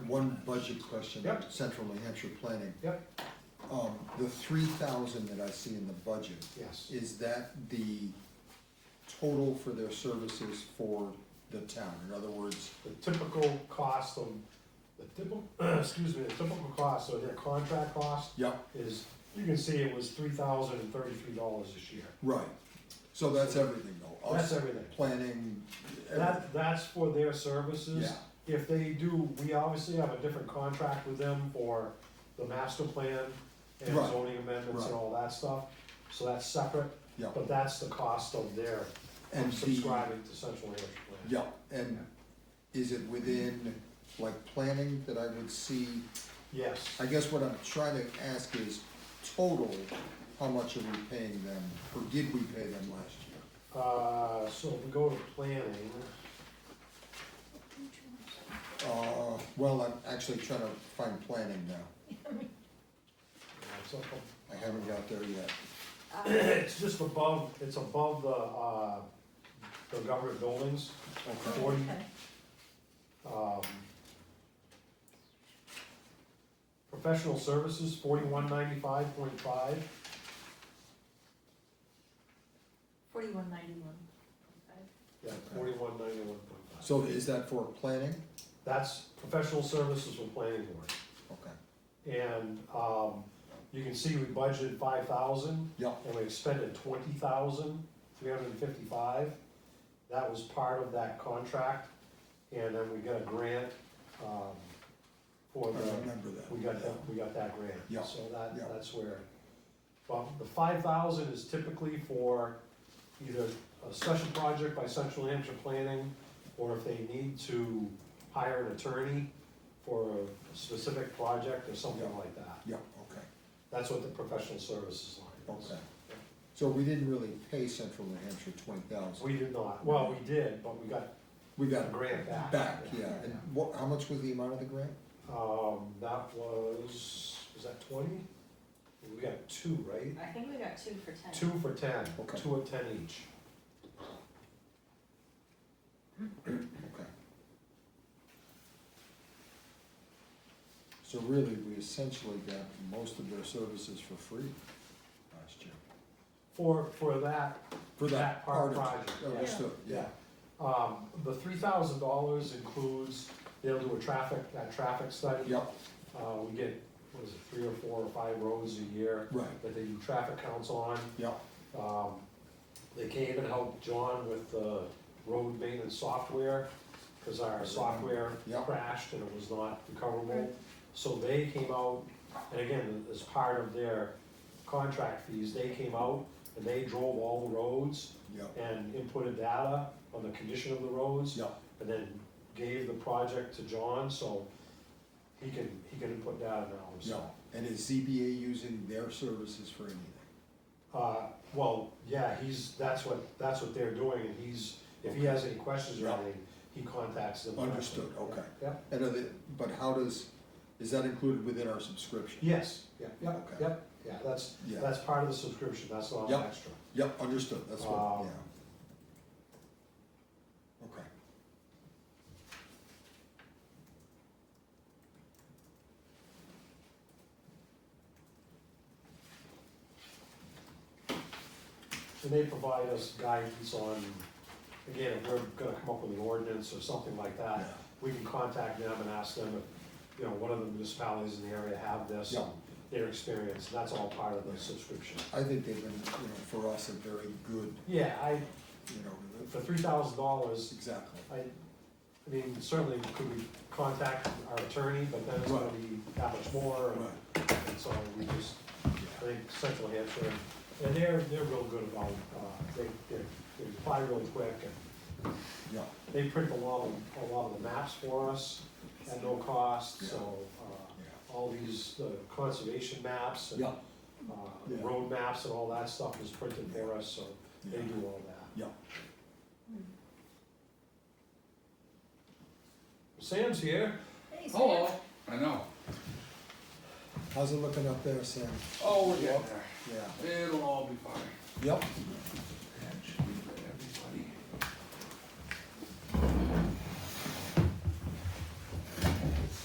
one budget question, Yep. Central New Hampshire Planning. Yep, Um, the three thousand that I see in the budget, yes, is that the total for their services for the town? In other words, the typical cost of, the typical, excuse me, the typical cost, so their contract cost yeah, is, you can see it was three thousand and thirty-three dollars this year. right, so that's everything though, That's us, everything. planning, everything, That, that's for their services. yeah, If they do, we obviously have a different contract with them for the master plan and Right. zoning amendments Right. and all that stuff. So that's separate, yeah. but that's the cost of their And the, subscribing to Central Hampshire Plan. yeah, and is it within, like, planning that I would see? Yes, I guess what I'm trying to ask is total, how much are we paying them, or did we pay them last year? uh, so if we go to planning, Uh, well, I'm actually trying to find planning now, it's up ab- I haven't got there yet. it's just above, it's above the, uh, the government buildings, forty, um, professional services, forty-one ninety-five point five, Forty-one ninety-one. yeah, forty-one ninety-one point five. So is that for planning? That's professional services for planning board, Okay, and, um, you can see we budgeted five thousand, yeah, and we expended twenty thousand, three hundred and fifty-five. That was part of that contract, and then we got a grant, um, I for the, remember that. we got that, we got that grant. Yeah, So that, yeah. that's where, well, the five thousand is typically for either a special project by Central New Hampshire Planning, or if they need to hire an attorney for a specific project or something Yeah. like that. Yeah, okay, That's what the professional services line is. okay. So we didn't really pay Central New Hampshire twenty thousand, We did not, well, we did, but we got we a got grant back. back, yeah, and what, how much was the amount of the grant? Um, that was, was that twenty? We got two, right? I think we got two for ten. Two for ten. Okay. Two at ten each. Okay. So really, we essentially got most of their services for free last year. For, for that, For that That part part of project, it, yeah. understood, yeah, um, the three thousand dollars includes, they'll do a traffic, that traffic study. yeah, Uh, we get, what is it, three or four or five roads a year right, that they do traffic counts on. yeah, Um, They came and helped John with the road maintenance software, because our software Yeah. crashed and it was not recoverable. So they came out, and again, as part of their contract fees, they came out and they drove all the roads yeah, and inputted data on the condition of the roads, yeah, and then gave the project to John, so he can, he can input data now yeah. himself. And is ZBA using their services for anything? Uh, well, yeah, he's, that's what, that's what they're doing, and he's, if he has any questions or Yeah. anything, he contacts them. directly. Understood, okay. Yep, And are they, but how does, is that included within our subscription? yes, yep, yep, Okay. yep, yeah, that's, Yeah, that's part of the subscription, that's not Yep. extra. yeah, understood, that's what, Um, yeah. Okay, And they provide us guidance on, again, if we're gonna come up with an ordinance or something like yeah, that, we can contact them and ask them if, you know, what other municipalities in the area have this, Yeah. and their experience, and that's all part of the subscription. I think they've been, you know, for us, a very good, Yeah, I, you know, for three thousand dollars, exactly. I, I mean, certainly could we contact our attorney, but then it's gonna be that much more, Right, and so we just, I yeah, think Central Hampshire, and they're, they're real good about, uh, they, they, they apply real quick, and yeah. they print a lot, of- a lot of the maps for us at no cost, so, Yeah. uh, all these, the conservation maps and, Yeah, uh, Yeah. road maps and all that stuff is printed for us, so they yeah, do all that. yeah, Sam's here. Hey, Sam. Hello, Oh, I know. how's it looking up there, Sam? Oh, we're getting there. Yeah, It'll all be fine. yep,